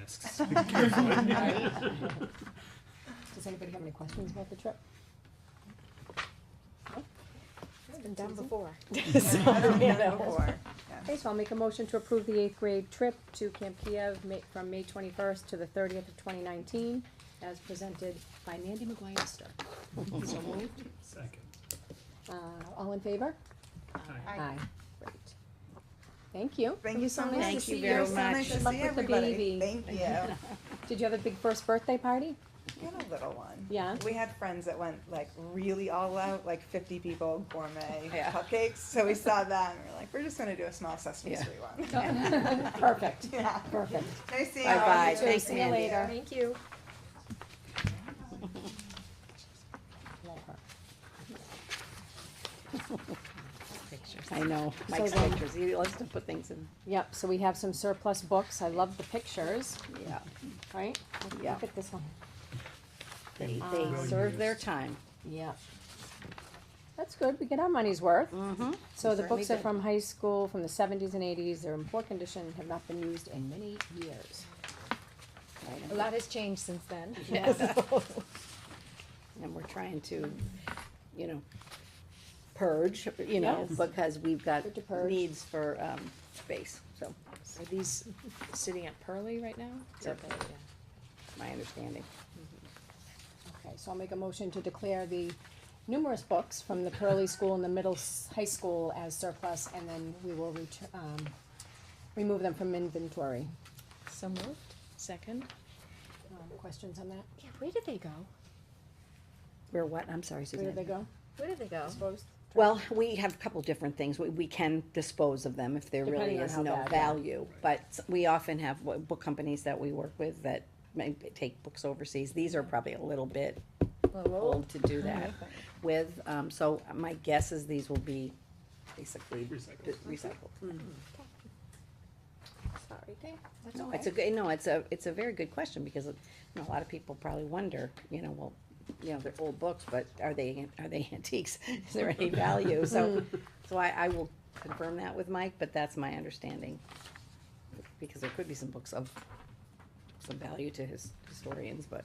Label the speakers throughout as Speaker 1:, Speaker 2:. Speaker 1: risks. Be careful.
Speaker 2: Does anybody have any questions about the trip? No? It's been done before. So, you know. Okay, so I'll make a motion to approve the eighth grade trip to Camp Kiev Ma- from May twenty-first to the thirtieth of twenty nineteen as presented by Mandy McGuire Stark. So moved.
Speaker 1: Second.
Speaker 2: Uh, all in favor?
Speaker 1: Aye.
Speaker 2: Aye. Great. Thank you.
Speaker 3: Thank you so much.
Speaker 2: Thank
Speaker 3: to
Speaker 2: you
Speaker 3: see
Speaker 2: very
Speaker 3: So
Speaker 2: much.
Speaker 3: nice to
Speaker 2: Good luck
Speaker 3: see
Speaker 2: with the
Speaker 3: everybody.
Speaker 2: baby.
Speaker 3: Thank you.
Speaker 2: Did you have a big first birthday party?
Speaker 3: Got a little one.
Speaker 2: Yeah.
Speaker 3: We had friends that went like really all out, like fifty people gourmet
Speaker 4: Yeah.
Speaker 3: cupcakes. So we saw that and we we're like, we're just gonna do a small Sesame
Speaker 4: Yeah.
Speaker 3: Street one.
Speaker 2: Perfect,
Speaker 3: Yeah.
Speaker 2: perfect.
Speaker 3: Nice seeing all
Speaker 4: Bye-bye.
Speaker 3: you.
Speaker 4: Thanks,
Speaker 2: See you
Speaker 4: Mandy.
Speaker 2: later.
Speaker 5: Thank you.
Speaker 2: Love her.
Speaker 4: Pictures.
Speaker 2: I know.
Speaker 4: Mike's
Speaker 2: So then-
Speaker 4: pictures, he loves to put things in,
Speaker 2: Yep, so we have some surplus books. I love the pictures,
Speaker 4: yeah,
Speaker 2: right? Look-
Speaker 4: Yeah.
Speaker 2: Look at this one.
Speaker 4: they,
Speaker 2: Um,
Speaker 4: they serve their time.
Speaker 2: Yep. That's good. We get our money's worth.
Speaker 4: Mm-hmm.
Speaker 2: So the
Speaker 4: Certainly
Speaker 2: books are
Speaker 4: did.
Speaker 2: from high school, from the seventies and eighties. They're in poor condition, have not been used in many years.
Speaker 5: A lot has changed since then.
Speaker 4: And we're trying to, you know, purge, you know,
Speaker 2: Yes.
Speaker 4: because we've got
Speaker 2: Good to purge.
Speaker 4: needs for, um, space, so,
Speaker 5: Are these sitting at Pearly right now? Is that
Speaker 4: Yep.
Speaker 5: the- yeah.
Speaker 4: my understanding.
Speaker 2: Okay, so I'll make a motion to declare the numerous books from the Pearly School and the middle s- high school as surplus, and then we will ret- um, remove them from inventory.
Speaker 5: So moved, second.
Speaker 2: Um, Questions on that?
Speaker 5: Yeah, where did they go?
Speaker 4: Where what, I'm sorry,
Speaker 2: Where
Speaker 4: Suzanne.
Speaker 2: did they go?
Speaker 5: Where did they go?
Speaker 2: Disposed?
Speaker 4: Well, we have a couple different things. We, we can dispose of them if there really
Speaker 2: Depending on
Speaker 4: is
Speaker 2: how
Speaker 4: no
Speaker 2: bad, yeah.
Speaker 4: value. But s- we often have w- book companies that we work with that may b- take books overseas. These are probably a little bit old to do that with. Um, so my guess is these will be basically d-
Speaker 1: Recycled.
Speaker 4: recycled.
Speaker 2: Sorry, Dave. That's
Speaker 4: No,
Speaker 2: all
Speaker 4: it's a
Speaker 2: right.
Speaker 4: good, no, it's a, it's a very good question because you know, a lot of people probably wonder, you know, well, you know, they're old books, but are they, are they antiques? Is there any value? So, so I, I will confirm that with Mike, but that's my understanding. Because there could be some books of some value to his historians, but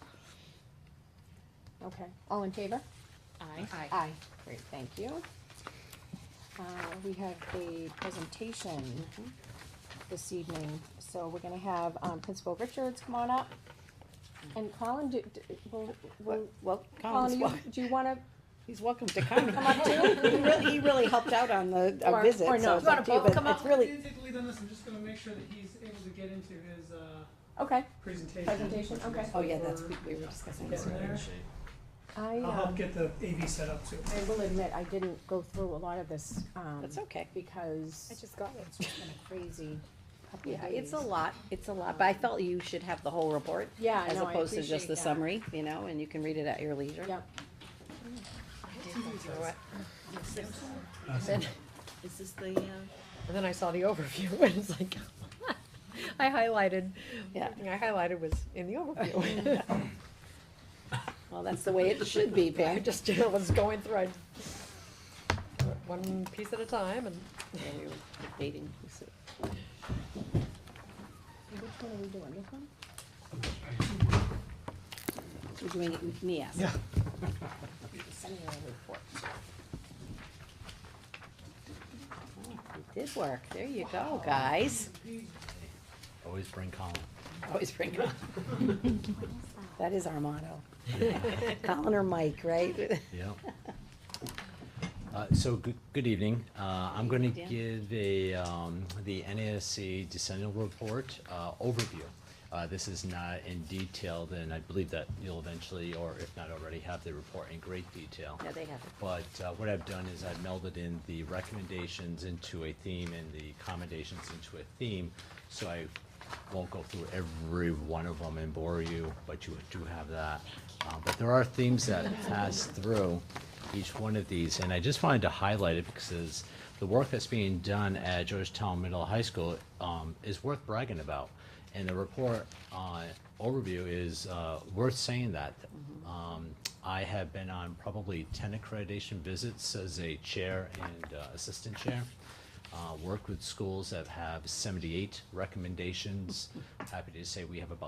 Speaker 2: Okay, all in favor?
Speaker 5: Aye.
Speaker 2: Aye. Great, thank you. Uh, we have a presentation this evening, so we're gonna have, um, Principal Richards come on up. And Colin, do, do, will, will,
Speaker 4: Well, well, Colin's
Speaker 2: Colin, you,
Speaker 4: wel-
Speaker 2: do you wanna,
Speaker 4: he's welcome to come.
Speaker 2: Come up too.
Speaker 4: He really, he really helped out on the,
Speaker 2: Or-
Speaker 4: a visit,
Speaker 2: or
Speaker 4: so
Speaker 2: not.
Speaker 4: it's up to you,
Speaker 2: You wanna both
Speaker 4: but
Speaker 2: come up?
Speaker 4: it's really,
Speaker 6: Basically done this, I'm just gonna make sure that he's able to get into his, uh,
Speaker 2: okay,
Speaker 6: presentation.
Speaker 2: presentation,
Speaker 6: which
Speaker 2: okay.
Speaker 6: is
Speaker 4: oh yeah, that's,
Speaker 6: for-
Speaker 4: we we were discussing
Speaker 6: Yeah,
Speaker 4: this
Speaker 6: we're
Speaker 4: earlier.
Speaker 6: there.
Speaker 2: I,
Speaker 6: I'll help
Speaker 2: um,
Speaker 6: get the AV set up too.
Speaker 2: I will admit, I didn't go through a lot of this, um,
Speaker 4: That's okay.
Speaker 2: because
Speaker 5: I just got one.
Speaker 2: it's just been a crazy couple of
Speaker 4: Yeah, it's a
Speaker 2: days.
Speaker 4: lot, it's a lot, but I felt you should have the whole report.
Speaker 2: Yeah,
Speaker 4: As
Speaker 2: no, I
Speaker 4: opposed to just
Speaker 2: appreciate
Speaker 4: the
Speaker 2: that.
Speaker 4: summary, you know, and you can read it at your leisure.
Speaker 2: Yep,
Speaker 4: Is this the, uh?
Speaker 5: And then I saw the overview and it's like, I highlighted,
Speaker 4: Yeah,
Speaker 5: everything I highlighted was in the overview.
Speaker 4: well, that's the way it should be,
Speaker 5: I
Speaker 4: Pam.
Speaker 5: just, you know, was going through, I, one piece at a time and.
Speaker 4: Yeah, you're Dating. so-
Speaker 2: which one are we doing, this one?
Speaker 4: We're doing it with me, yes.
Speaker 2: Sending a report.
Speaker 4: It Oh, did work, there you go, guys.
Speaker 1: Always bring Colin.
Speaker 4: Always bring it up. That is our motto. Colin or Mike, right?
Speaker 1: Yeah. Uh, so good, good evening. Uh, I'm going to
Speaker 4: Dan.
Speaker 1: give a um, the NASC decennial report uh, overview. Uh, this is not in detail, and I believe that you'll eventually, or if not already, have the report in great detail.
Speaker 4: No, they have it.
Speaker 1: But uh, what I've done is I've melded in the recommendations into a theme and the commendations into a theme. So I won't go through every one of them and bore you, but you do have that. Uh, But there are themes that pass through each one of these, and I just wanted to highlight it because the work that's being done at Georgetown Middle High School um, is worth bragging about. And the report uh, overview is uh, worth saying that. Um, I have been on probably 10 accreditation visits as a chair and uh, assistant chair. Uh, Worked with schools that have 78 recommendations. Happy to say we have about